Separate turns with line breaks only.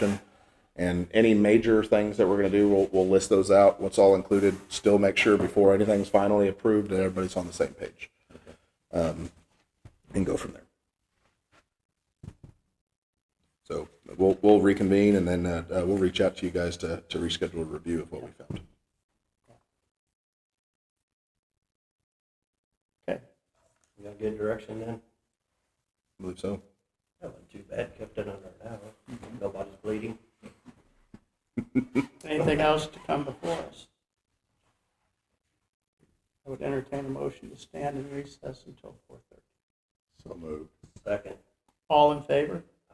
section. And any major things that we're going to do, we'll, we'll list those out, what's all included. Still make sure before anything's finally approved that everybody's on the same page. Um, and go from there. So we'll, we'll reconvene and then uh, uh, we'll reach out to you guys to, to reschedule a review of what we found.
Okay. You got good direction then?
I believe so.
That wasn't too bad, kept it under an hour. Nobody's bleeding.
Anything else to come before us? I would entertain a motion to stand in recess until four thirty.
So moved.
Second.
All in favor?